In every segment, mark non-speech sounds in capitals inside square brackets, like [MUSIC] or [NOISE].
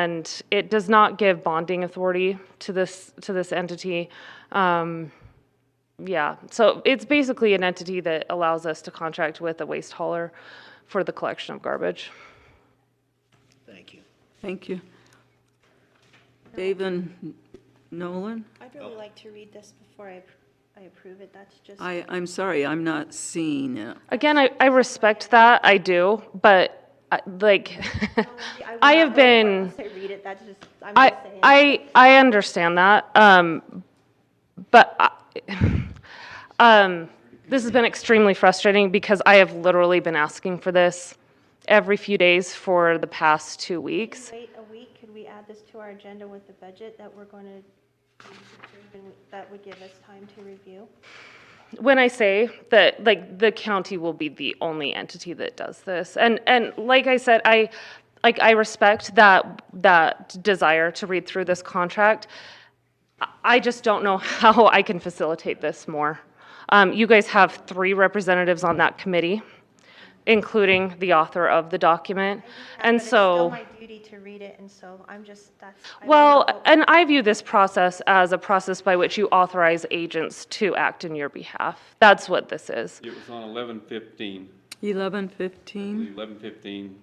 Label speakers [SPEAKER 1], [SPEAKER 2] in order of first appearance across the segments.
[SPEAKER 1] and it does not give bonding authority to this, to this entity. Um, Yeah, so it's basically an entity that allows us to contract with a waste hauler for the collection of garbage.
[SPEAKER 2] Thank you.
[SPEAKER 3] Thank you. David Nolan?
[SPEAKER 4] I'd really like to read this before I, ap- I approve it, that's just,
[SPEAKER 3] I, I'm sorry, I'm not seeing it.
[SPEAKER 1] Again, I, I respect that, I do, but I- like, [LAUGHS]
[SPEAKER 4] would
[SPEAKER 1] I have
[SPEAKER 4] not really
[SPEAKER 1] been.
[SPEAKER 4] want to say read it, that's just, I'm
[SPEAKER 1] I,
[SPEAKER 4] just saying.
[SPEAKER 1] I, I understand that, um, but, I- [LAUGHS] um, this has been extremely frustrating because I have literally been asking for this every few days for the past two weeks.
[SPEAKER 4] Wait a week, could we add this to our agenda with the budget that we're going to, that would give us time to review?
[SPEAKER 1] when I say that, like, the county will be the only entity that does this, and, and like I said, I, like, I respect that, that desire to read through this contract. I- I just don't know how [LAUGHS] I can facilitate this more. Um, you guys have three representatives on that committee, including the author of the document, and so.
[SPEAKER 4] But it's still my duty to read it, and so I'm just, that's. I
[SPEAKER 1] Well,
[SPEAKER 4] really hope-
[SPEAKER 1] and I view this process as a process by which you authorize agents to act in your behalf. That's what this is.
[SPEAKER 5] It was on eleven fifteen,
[SPEAKER 3] 11:15?
[SPEAKER 5] eleven fifteen.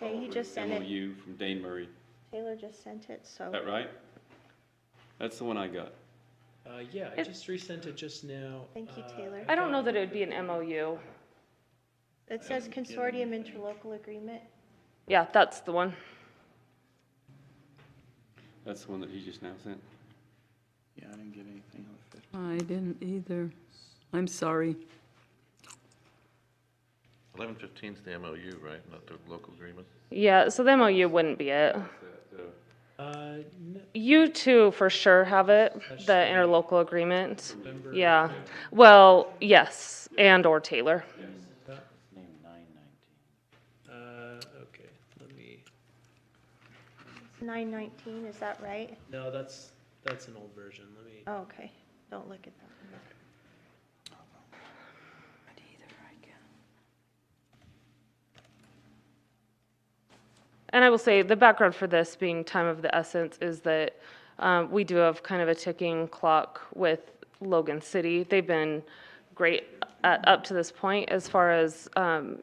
[SPEAKER 4] Okay, he just sent it,
[SPEAKER 5] MOU from Dane Murray, is
[SPEAKER 4] Taylor just sent it, so.
[SPEAKER 5] that right? That's the one I got.
[SPEAKER 6] Uh, yeah, I just resent it just now.
[SPEAKER 4] Thank you,
[SPEAKER 6] Uh,
[SPEAKER 4] Taylor.
[SPEAKER 1] I don't know that it would be an MOU.
[SPEAKER 4] It says consortium interlocal agreement.
[SPEAKER 1] Yeah, that's the one.
[SPEAKER 5] That's the one that he just now sent.
[SPEAKER 2] Yeah, I didn't get anything on the fifth.
[SPEAKER 3] I didn't either. I'm sorry.
[SPEAKER 7] Eleven fifteen's the MOU, right, not the local agreement?
[SPEAKER 1] Yeah, so the MOU wouldn't be it.
[SPEAKER 5] That, uh,
[SPEAKER 6] Uh, no,
[SPEAKER 1] You two for sure have it, the interlocal agreement.
[SPEAKER 6] November.
[SPEAKER 1] Yeah. Well, yes, and or Taylor.
[SPEAKER 6] Uh, okay, let me,
[SPEAKER 4] It's 919, is that right?
[SPEAKER 6] no, that's, that's an old version, let me,
[SPEAKER 4] Oh, okay, don't look at that.
[SPEAKER 1] And I will say, the background for this being time of the essence is that um, we do have kind of a ticking clock with Logan City. They've been great at, up to this point as far as, um,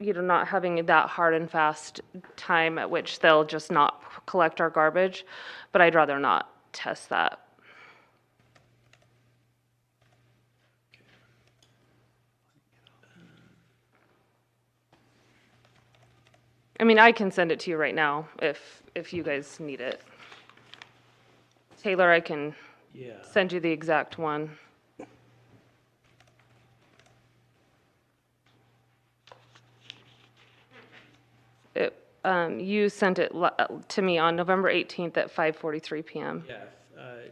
[SPEAKER 1] you know, not having that hard and fast time at which they'll just not p- collect our garbage, but I'd rather not test that. I mean, I can send it to you right now if, if you guys need it. Taylor, I can
[SPEAKER 6] yeah.
[SPEAKER 1] send you the exact one. It, um, you sent it li- uh, to me on November 18th at 5:43 PM.
[SPEAKER 6] Yeah, if, uh,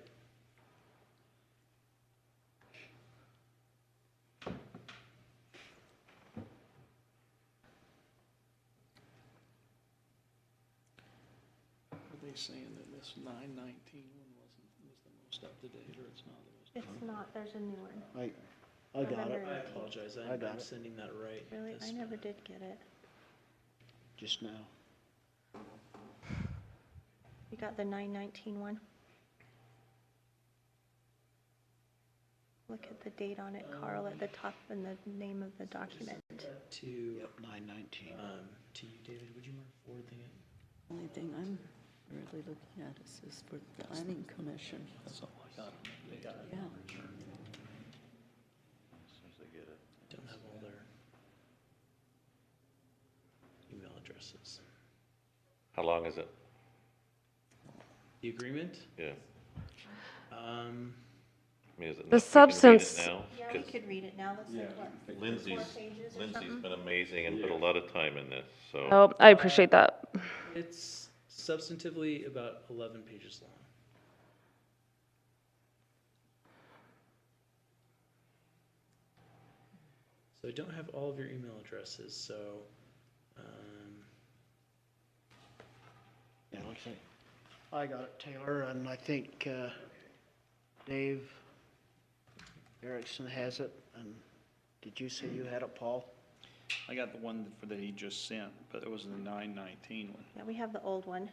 [SPEAKER 2] Are they saying that this nine nineteen one wasn't, was the most up to date, or it's not the most?
[SPEAKER 4] It's not, there's a new one.
[SPEAKER 2] I, I got it,
[SPEAKER 4] November
[SPEAKER 6] I
[SPEAKER 4] 18th.
[SPEAKER 6] apologize,
[SPEAKER 2] I
[SPEAKER 6] I'm,
[SPEAKER 2] got
[SPEAKER 6] I'm
[SPEAKER 2] it.
[SPEAKER 6] sending that right.
[SPEAKER 4] Really,
[SPEAKER 6] this
[SPEAKER 4] I never did get it.
[SPEAKER 2] just now.
[SPEAKER 4] You got the 919 one? Look at the date on it, Carl, at the top and the name of the document.
[SPEAKER 6] To,
[SPEAKER 2] Yep, Uh, nine nineteen.
[SPEAKER 6] um, to you, David, would you mind forwarding it?
[SPEAKER 3] Only thing I'm really looking at is this for the planning commission. That's all I got. Yeah,
[SPEAKER 6] Don't have all their email addresses.
[SPEAKER 7] How long is it?
[SPEAKER 6] The agreement,
[SPEAKER 7] Yeah,
[SPEAKER 6] um,
[SPEAKER 7] I mean, is it?
[SPEAKER 1] The
[SPEAKER 7] not- we can read it
[SPEAKER 1] substance-
[SPEAKER 7] now?
[SPEAKER 4] Yeah, we
[SPEAKER 7] 'Cause
[SPEAKER 4] could read it now, that's like what?
[SPEAKER 7] Lindsay's,
[SPEAKER 4] pages or
[SPEAKER 7] Lindsay's
[SPEAKER 4] something?
[SPEAKER 7] been amazing and put a lot of time in this, so.
[SPEAKER 1] Oh, I appreciate that.
[SPEAKER 6] it's substantively about eleven pages long. So I don't have all of your email addresses, so, um,
[SPEAKER 2] Yeah, like I say, I got it, Taylor, and I think, uh, Dave Erickson has it, and did you say you had it, Paul?
[SPEAKER 8] I got the one for that he just sent, but it was the nine nineteen one.
[SPEAKER 4] Yeah, we have the old one.